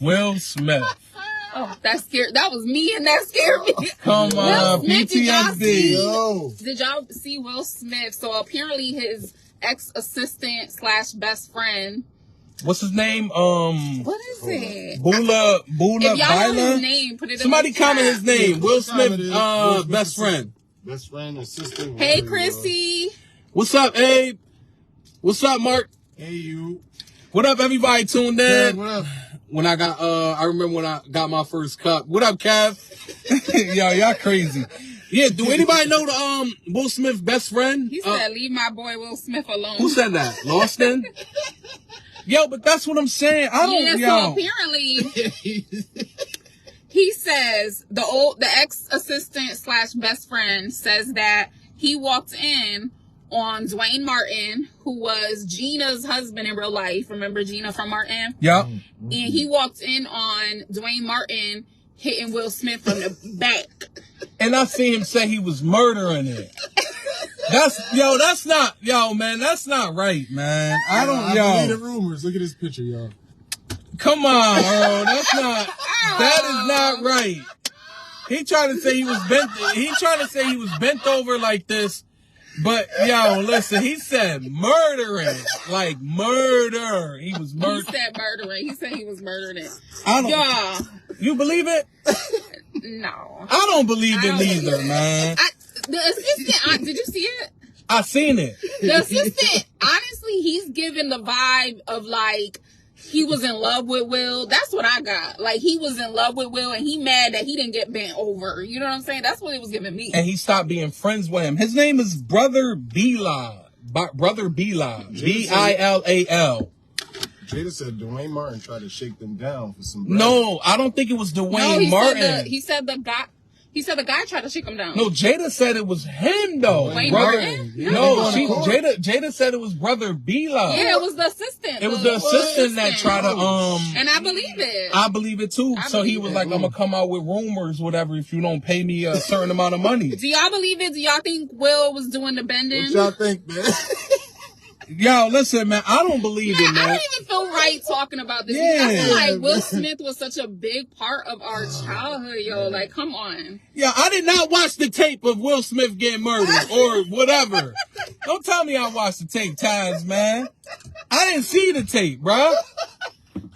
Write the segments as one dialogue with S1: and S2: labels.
S1: Will Smith.
S2: Oh, that scared. That was me, and that scared me.
S1: Come on,
S2: Smith, did y'all
S1: PTSD.
S2: see-
S3: Yo.
S2: Did y'all see Will Smith? So apparently, his ex assistant slash best friend.
S1: What's his name? Um,
S2: What is it?
S1: Bula Bula
S2: If y'all know his
S1: Bila.
S2: name, put it. in
S1: Somebody
S2: the
S1: comment
S2: chat.
S1: his name. Will
S3: Comment
S1: Smith,
S3: it.
S1: uh,
S3: Will Smith
S1: best
S3: is-
S1: friend.
S3: Best friend and sister.
S2: Hey, Chrissy.
S1: What's up, Abe? What's up, Mark?
S3: Hey, you.
S1: What up, everybody tuned
S3: Hey,
S1: in?
S3: what up?
S1: When I got, uh, I remember when I got my first cup. What up, Kev? Yo, y'all crazy. Yeah, do anybody know the, um, Will Smith best friend?
S2: He
S1: Uh,
S2: said, "Leave my boy Will Smith alone."
S1: Who said that? Lawston? yo, but that's what I'm saying. I
S2: Yeah,
S1: don't,
S2: so
S1: yo.
S2: apparently he says the old the ex assistant slash best friend says that he walked in on Dwayne Martin, who was Gina's husband in real life. Remember Gina from Martin?
S1: Yup.
S2: And he walked in on Dwayne Martin hitting Will Smith from the back.
S1: And I see him say he was murdering it. That's, yo, that's not, yo, man, that's not right, man. I don't,
S3: I believe
S1: yo.
S3: the rumors. Look at this picture, y'all.
S1: Come on, bro. That's not. That is not right. He tried to say he was bent. He tried to say he was bent over like this, but yo, listen. He said murdering, like murder. He was
S2: He
S1: murdered.
S2: said murdering. He said he was murdering it.
S1: I don't.
S2: Y'all,
S1: You believe it?
S2: no.
S1: I don't believe
S2: I
S1: it
S2: don't believe
S1: neither,
S2: it.
S1: man.
S2: I, the assistant, I, did you see it?
S1: I seen it.
S2: The assistant, honestly, he's giving the vibe of like he was in love with Will. That's what I got. Like he was in love with Will, and he mad that he didn't get bent over. You know what I'm saying? That's what it was giving me.
S1: and he stopped being friends with him. His name is Brother Bila. B- Brother Bila. B I L A L.
S3: Jada said Dwayne Martin tried to shake them down for some. bread.
S1: No, I don't think it was
S2: no,
S1: Dwayne
S2: he
S1: Martin.
S2: said the he said the guy he said the guy tried to shake him down.
S1: No, Jada said it was him though.
S3: Wayne
S1: brother.
S2: Martin?
S1: No,
S3: Yeah.
S1: she,
S3: Yeah.
S1: Jada Jada said it was brother Bila.
S2: yeah, it was the assistant.
S1: It was the assistant that tried to um
S2: And I believe it.
S1: I believe it too.
S2: I
S1: so he
S2: believe
S1: was
S2: it.
S1: like, I'm gonna come out with rumors, whatever, if you don't pay me a certain amount of money.
S2: do y'all believe it? Do y'all think Will was doing the bending?
S3: What y'all think, man?
S1: Yo, listen, man, I don't believe it,
S2: I
S1: man.
S2: don't even feel right talking about this. I
S1: Yeah.
S2: feel like Will Smith was such a big part of our childhood, yo. Like, come on.
S1: Yeah, I did not watch the tape of Will Smith getting murdered or whatever. Don't tell me I watched the tape times, man. I didn't see the tape, bruh.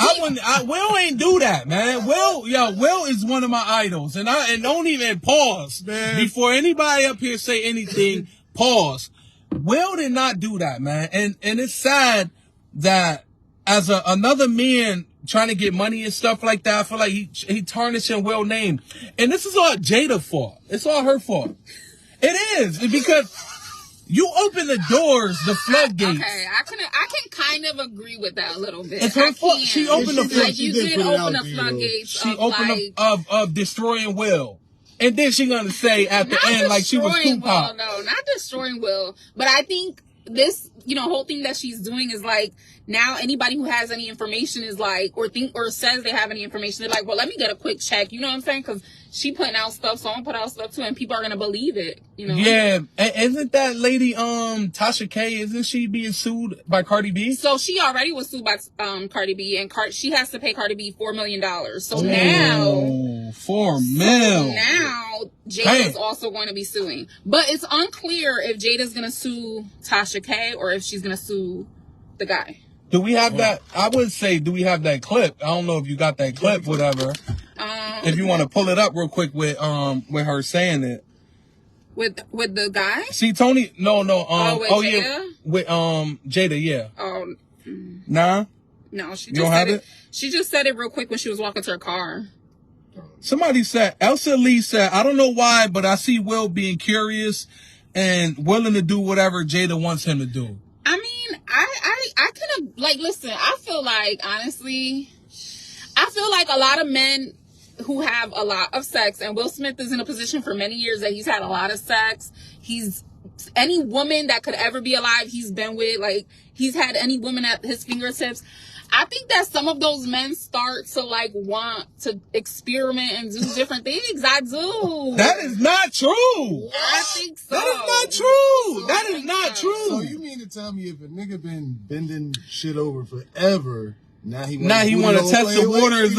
S1: I wouldn't. I, Will ain't do that, man. Will, yo, Will is one of my idols, and I and don't even pause
S3: Man.
S1: before anybody up here say anything. pause. Will did not do that, man, and and it's sad that as a, another man trying to get money and stuff like that, I feel like he he tarnishing Will name, and this is all Jada fault. It's all her fault. It is because you open the doors, the floodgates.
S2: Okay, I can I can kind of agree with that a little bit.
S1: It's her
S2: I
S1: fault.
S2: can.
S1: She opened the
S3: flood-
S2: Like
S3: she
S2: you
S3: did
S2: did
S3: put it
S2: open
S3: out
S2: the
S3: there,
S2: floodgates.
S1: she
S2: of,
S1: opened
S2: like,
S1: up of, of destroying Will, and then she gonna say at the
S2: not
S1: end like she was
S2: destroying Will,
S1: Tupac.
S2: no, not destroying Will. But I think this, you know, whole thing that she's doing is like now anybody who has any information is like, or think, or says they have any information, they're like, well, let me get a quick check. You know what I'm saying? Because she putting out stuff, so I'm gonna put out stuff too, and people are gonna believe it. You know?
S1: Yeah, a- isn't that lady um Tasha K? Isn't she being sued by Cardi B?
S2: So she already was sued by um, Cardi B, and Card- she has to pay Cardi B four million dollars. So now.
S1: Ooh, four mil.
S2: now Jada's
S1: Damn.
S2: also going to be suing. But it's unclear if Jada's going to sue Tasha K or if she's going to sue the guy.
S1: Do we have that? I would say, do we have that clip? I don't know if you got that clip, whatever.
S2: Um,
S1: If you want to pull it up real quick with um with her saying it.
S2: with with the guy.
S1: See, Tony, no, no, um,
S2: Oh,
S1: oh,
S2: with
S1: yeah,
S2: Jada?
S1: with um Jada, yeah,
S2: Oh
S1: nah.
S2: no, she
S1: You
S2: just
S1: don't
S2: said
S1: have
S2: it.
S1: it?
S2: She just said it real quick when she was walking to her car.
S1: Somebody said, Elsa Lee said, I don't know why, but I see Will being curious and willing to do whatever Jada wants him to do.
S2: I mean, I I I could have like listen. I feel like honestly, I feel like a lot of men who have a lot of sex, and Will Smith is in a position for many years that he's had a lot of sex. He's any woman that could ever be alive, he's been with. Like he's had any woman at his fingertips. I think that some of those men start to like want to experiment and do different things. I do.
S1: That is not true.
S2: I think so.
S1: That is not true. That is not
S3: So
S1: true.
S3: Oh, you mean to tell me if a nigga been bending shit over forever, now he wanna
S1: Now he
S3: boot it
S1: want to
S3: over,
S1: test
S3: play
S1: the
S3: it with-
S1: waters